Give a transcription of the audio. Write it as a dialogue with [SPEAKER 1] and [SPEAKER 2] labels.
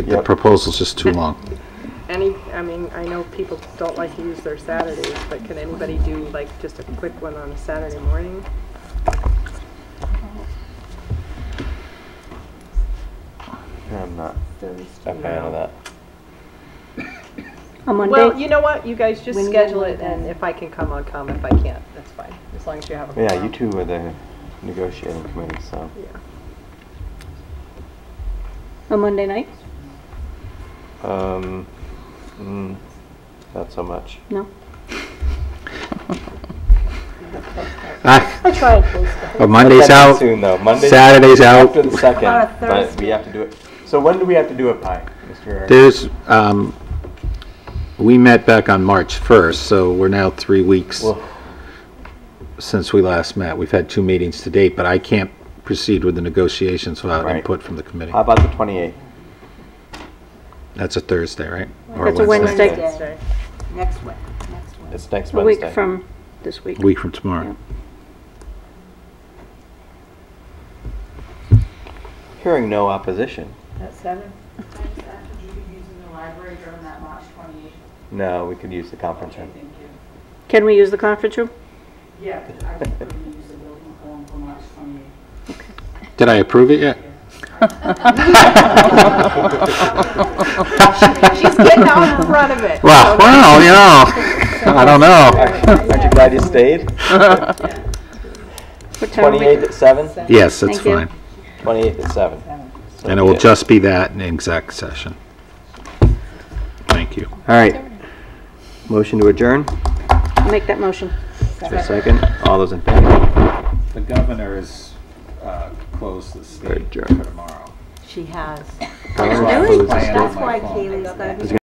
[SPEAKER 1] The proposal's just too long.
[SPEAKER 2] Any, I mean, I know people don't like to use their Saturdays, but can anybody do like just a quick one on a Saturday morning?
[SPEAKER 3] I'm not
[SPEAKER 2] Thursday.
[SPEAKER 3] a fan of that.
[SPEAKER 4] On Monday?
[SPEAKER 2] Well, you know what, you guys just
[SPEAKER 4] When you
[SPEAKER 2] schedule
[SPEAKER 4] want
[SPEAKER 2] it and
[SPEAKER 4] that.
[SPEAKER 2] if I can come, I'll come. If I can't, that's fine, as long as you have a.
[SPEAKER 3] Yeah, you
[SPEAKER 2] quorum.
[SPEAKER 3] two were the negotiating committee, so.
[SPEAKER 2] Yeah.
[SPEAKER 4] On Monday night?
[SPEAKER 3] Um, mm, not so much.
[SPEAKER 4] No?
[SPEAKER 1] Ah,
[SPEAKER 4] I tried Thursday.
[SPEAKER 1] But Monday's
[SPEAKER 3] That's
[SPEAKER 1] out,
[SPEAKER 3] Soon though, Monday.
[SPEAKER 1] Saturday's out.
[SPEAKER 3] After the second,
[SPEAKER 2] About a
[SPEAKER 3] but we
[SPEAKER 2] Thursday.
[SPEAKER 3] have to do it. So when do we have to do it by, Mr.
[SPEAKER 1] There's, um, we met back on March 1st, so we're now three weeks
[SPEAKER 3] Well-
[SPEAKER 1] since we last met. We've had two meetings to date, but I can't proceed with the negotiations without
[SPEAKER 3] Right. Uh,
[SPEAKER 1] input from the committee.
[SPEAKER 3] How about the 28th?
[SPEAKER 1] That's a Thursday, right? Or
[SPEAKER 4] That's a Wednesday.
[SPEAKER 2] Wednesday.
[SPEAKER 5] Next week, next week.
[SPEAKER 3] It's next
[SPEAKER 4] A
[SPEAKER 3] Wednesday.
[SPEAKER 4] week from this week.
[SPEAKER 1] Week from tomorrow.
[SPEAKER 3] Hearing no opposition.
[SPEAKER 2] At seven?
[SPEAKER 5] You could use in the library during that March twenty-eighth.
[SPEAKER 3] No, we could use the conference room.
[SPEAKER 5] Thank you.
[SPEAKER 4] Can we use the conference room?
[SPEAKER 5] Yeah, I could probably use the building form for March twenty-eighth.
[SPEAKER 1] Did I approve it yet?
[SPEAKER 2] She's getting out in front of it.
[SPEAKER 1] Well, well, you know, I don't know.
[SPEAKER 3] Aren't you glad you stayed?
[SPEAKER 4] What time are we-
[SPEAKER 3] 28th at 7?
[SPEAKER 1] Yes, that's
[SPEAKER 4] Thank you.
[SPEAKER 1] fine.
[SPEAKER 3] 28th at 7. So
[SPEAKER 1] And it will
[SPEAKER 3] yeah.
[SPEAKER 1] just be that in exec session. Thank you.
[SPEAKER 3] All right. Motion to adjourn.
[SPEAKER 4] I'll make that motion.
[SPEAKER 3] Is there a second? All those in favor?
[SPEAKER 6] The governor is uh, closed the state
[SPEAKER 3] Adjourned.
[SPEAKER 6] for tomorrow.
[SPEAKER 5] She has.
[SPEAKER 3] Opposed?
[SPEAKER 6] Plan on my phone.
[SPEAKER 5] Kaylee's not